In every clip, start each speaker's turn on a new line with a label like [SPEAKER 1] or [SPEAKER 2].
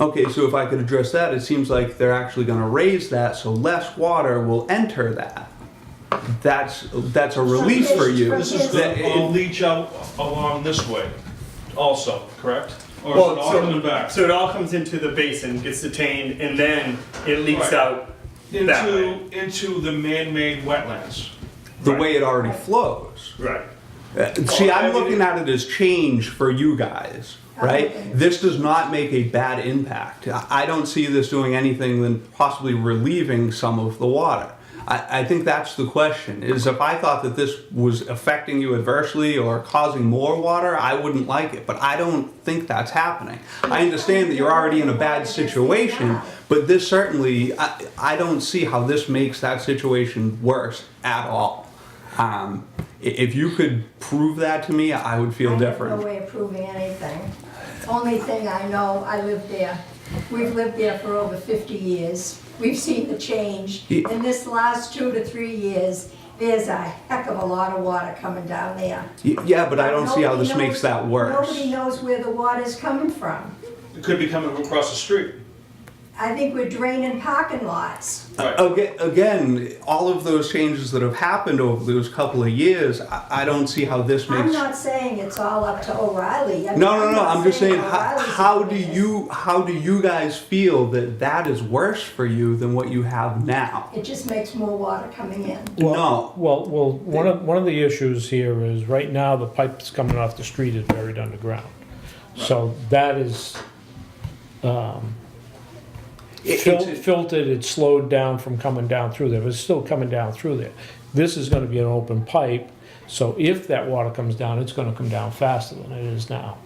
[SPEAKER 1] Okay, so if I could address that, it seems like they're actually going to raise that, so less water will enter that. That's that's a relief for you.
[SPEAKER 2] From
[SPEAKER 3] This is
[SPEAKER 1] That-
[SPEAKER 3] gonna all leach out along this way also, correct? Or is
[SPEAKER 4] Well,
[SPEAKER 3] it all
[SPEAKER 4] so-
[SPEAKER 3] coming back?
[SPEAKER 4] So it all comes into the basin, gets detained, and then it leaks
[SPEAKER 3] Right.
[SPEAKER 4] out that way.
[SPEAKER 3] Into, into the man-made wetlands.
[SPEAKER 1] the way it already flows.
[SPEAKER 4] Right.
[SPEAKER 1] Uh, See,
[SPEAKER 3] I
[SPEAKER 1] I'm
[SPEAKER 3] mean-
[SPEAKER 1] looking at it as change for you guys, right?
[SPEAKER 2] Okay.
[SPEAKER 1] This does not make a bad impact. I I don't see this doing anything than possibly relieving some of the water. I, I think that's the question, is if I thought that this was affecting you adversely or causing more water, I wouldn't like it, but I don't think that's happening. I understand that you're already in a bad situation, but this certainly, I, I don't see how this makes that situation worse at all. Um, i- if you could prove that to me, I would feel
[SPEAKER 2] I have no
[SPEAKER 1] different.
[SPEAKER 2] way of proving anything. Only thing I know, I live there. We've lived there for over 50 years. We've seen the change.
[SPEAKER 1] Yeah.
[SPEAKER 2] In this last two to three years, there's a heck of a lot of water coming down there.
[SPEAKER 1] Y- Yeah, but I don't see how this
[SPEAKER 2] Nobody knows-
[SPEAKER 1] makes that worse.
[SPEAKER 2] Nobody knows where the water's coming from.
[SPEAKER 3] It could be coming across the street.
[SPEAKER 2] I think we're draining parking lots.
[SPEAKER 3] Right.
[SPEAKER 1] Uh, Aga- Again, all of those changes that have happened over those couple of years, I I don't see how this
[SPEAKER 2] I'm
[SPEAKER 1] makes.
[SPEAKER 2] not saying it's all up to O'Reilly. I mean,
[SPEAKER 1] No, no, no,
[SPEAKER 2] not
[SPEAKER 1] I'm just saying, how,
[SPEAKER 2] O'Reilly's
[SPEAKER 1] how
[SPEAKER 2] doing
[SPEAKER 1] do
[SPEAKER 2] this.
[SPEAKER 1] you, how do you guys feel that that is worse for you than what you have now?
[SPEAKER 2] It just makes more water coming in.
[SPEAKER 1] No.
[SPEAKER 5] Well, well, one of, one of the issues here is right now the pipe that's coming off the street is buried underground. So that is um,
[SPEAKER 1] It-
[SPEAKER 5] fil-
[SPEAKER 1] it's-
[SPEAKER 5] filtered, it's slowed down from coming down through there, but it's still coming down through there. This is gonna be an open pipe, so if that water comes down, it's gonna come down faster than it is now.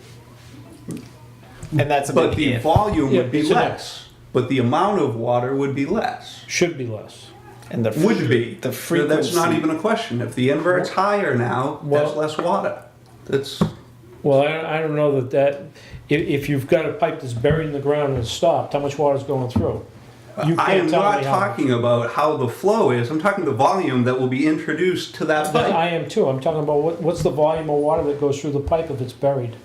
[SPEAKER 6] And that's a
[SPEAKER 1] But
[SPEAKER 6] big
[SPEAKER 1] the
[SPEAKER 6] if.
[SPEAKER 1] volume
[SPEAKER 5] Yeah,
[SPEAKER 1] would be
[SPEAKER 5] it's an
[SPEAKER 1] less, but the amount of water would be less.
[SPEAKER 5] Should be less.
[SPEAKER 6] And the
[SPEAKER 1] Would be.
[SPEAKER 6] the
[SPEAKER 1] No, That's not
[SPEAKER 6] frequency.
[SPEAKER 1] even a question. If the invert's higher now,
[SPEAKER 5] Well-
[SPEAKER 1] that's less water. That's,
[SPEAKER 5] Well, I, I don't know that that, if, if you've got a pipe that's buried in the ground and it's stopped, how much water's going through? You
[SPEAKER 1] Uh, I
[SPEAKER 5] can't
[SPEAKER 1] am
[SPEAKER 5] tell
[SPEAKER 1] not
[SPEAKER 5] me how-
[SPEAKER 1] talking about how the flow is, I'm talking the volume that will be introduced to that
[SPEAKER 5] But
[SPEAKER 1] pipe.
[SPEAKER 5] I am too, I'm talking about what, what's the volume of water that goes through the pipe if it's buried?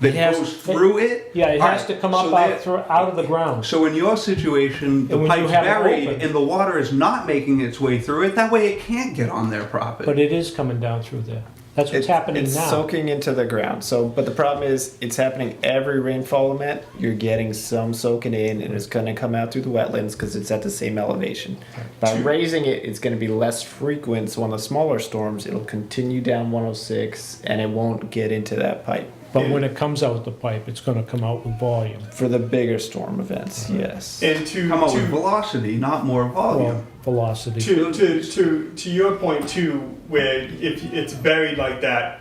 [SPEAKER 1] That
[SPEAKER 5] it has-
[SPEAKER 1] goes through it?
[SPEAKER 5] Yeah, it
[SPEAKER 1] All
[SPEAKER 5] has
[SPEAKER 1] right,
[SPEAKER 5] to come up
[SPEAKER 1] so
[SPEAKER 5] out,
[SPEAKER 1] that-
[SPEAKER 5] through, out of the ground.
[SPEAKER 1] So in your situation, the
[SPEAKER 5] And when you
[SPEAKER 1] pipe's
[SPEAKER 5] have it
[SPEAKER 1] buried
[SPEAKER 5] open.
[SPEAKER 1] and the water is not making its way through it, that way it can't get on their property.
[SPEAKER 5] But it is coming down through there. That's what's
[SPEAKER 6] It's,
[SPEAKER 5] happening
[SPEAKER 6] it's
[SPEAKER 5] now.
[SPEAKER 6] soaking into the ground. So, but the problem is, it's happening every rainfall event. You're getting some soaking in, and it's going to come out through the wetlands because it's at the same elevation. By raising it, it's going to be less frequent. So, on the smaller storms, it'll continue down 106, and it won't get into that pipe.
[SPEAKER 5] But when it comes out the pipe, it's gonna come out with volume.
[SPEAKER 6] For the bigger storm events, yes.
[SPEAKER 4] And to,
[SPEAKER 1] Come up with
[SPEAKER 4] to,
[SPEAKER 1] velocity, not more
[SPEAKER 5] Well,
[SPEAKER 1] volume.
[SPEAKER 5] velocity.
[SPEAKER 4] to, to, to, to your point too, where if it's buried like that,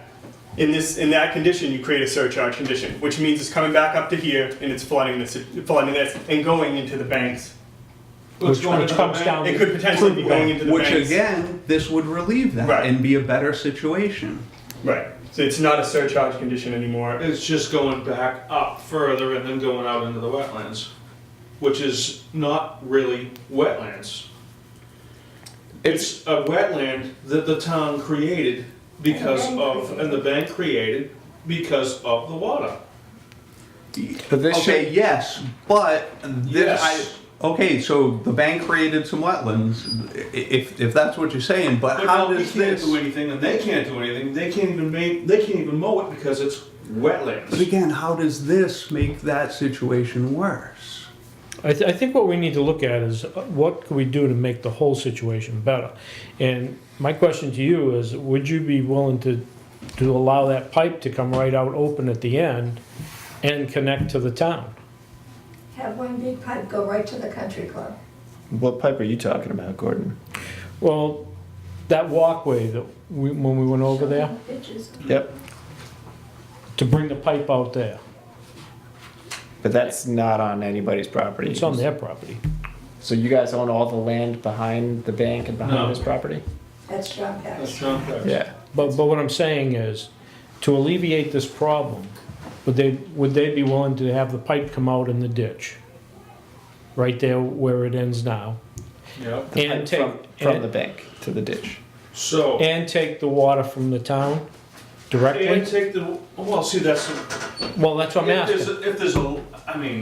[SPEAKER 4] in this, in that condition, you create a surcharge condition, which means it's coming back up to here and it's flooding this, flooding this, and going into the banks.
[SPEAKER 3] Let's
[SPEAKER 5] Which-
[SPEAKER 3] go into
[SPEAKER 5] which
[SPEAKER 3] the
[SPEAKER 5] comes
[SPEAKER 3] bank.
[SPEAKER 5] down-
[SPEAKER 4] It could potentially be going into the
[SPEAKER 1] Which
[SPEAKER 4] banks.
[SPEAKER 1] again, this would relieve that
[SPEAKER 4] Right.
[SPEAKER 1] and be a better situation.
[SPEAKER 4] Right. So it's not a surcharge condition anymore.
[SPEAKER 3] It's just going back up further and then going out into the wetlands, which is not really wetlands. It's a wetland that the town created because
[SPEAKER 2] And the bank
[SPEAKER 3] of,
[SPEAKER 2] created.
[SPEAKER 3] and the bank created because of the water.
[SPEAKER 6] But this
[SPEAKER 1] okay,
[SPEAKER 6] should-
[SPEAKER 1] yes, but this,
[SPEAKER 3] Yes.
[SPEAKER 1] I, okay, so the bank created some wetlands, i- if, if that's what you're saying, but
[SPEAKER 3] But
[SPEAKER 1] how
[SPEAKER 3] now we
[SPEAKER 1] does
[SPEAKER 3] can't
[SPEAKER 1] this?
[SPEAKER 3] do anything and they can't do anything. They can't even make, they can't even mow it because it's
[SPEAKER 1] But
[SPEAKER 3] wetlands.
[SPEAKER 1] again, how does this make that situation worse?
[SPEAKER 5] I, th- I think what we need to look at is uh, what could we do to make the whole situation better? And my question to you is, would you be willing to, to allow that pipe to come right out open at the end and connect to the town?
[SPEAKER 2] Have one big pipe go right to the country club.
[SPEAKER 6] what pipe are you talking about, Gordon?
[SPEAKER 5] Well, that walkway that we, when we went over there,
[SPEAKER 2] Bitches.
[SPEAKER 6] Yep.
[SPEAKER 5] to bring the pipe out there,
[SPEAKER 6] But that's not on anybody's property.
[SPEAKER 5] it's on their property.
[SPEAKER 6] So you guys own all the land behind the bank and behind
[SPEAKER 3] No.
[SPEAKER 6] this property?
[SPEAKER 2] That's John
[SPEAKER 3] That's
[SPEAKER 2] Pax.
[SPEAKER 3] John Pax.
[SPEAKER 6] Yeah.
[SPEAKER 5] But, but what I'm saying is, to alleviate this problem, would they, would they be willing to have the pipe come out in the ditch? Right there where it ends now,
[SPEAKER 3] Yep.
[SPEAKER 6] The
[SPEAKER 5] And
[SPEAKER 6] pipe
[SPEAKER 5] take-
[SPEAKER 6] from, from
[SPEAKER 5] and-
[SPEAKER 6] the bank to the ditch.
[SPEAKER 3] So.
[SPEAKER 5] and take the water from the town
[SPEAKER 3] And
[SPEAKER 5] directly?
[SPEAKER 3] take the, well, see, that's,
[SPEAKER 5] Well, that's what I'm
[SPEAKER 3] if
[SPEAKER 5] asking.
[SPEAKER 3] there's, a- if there's a, I mean,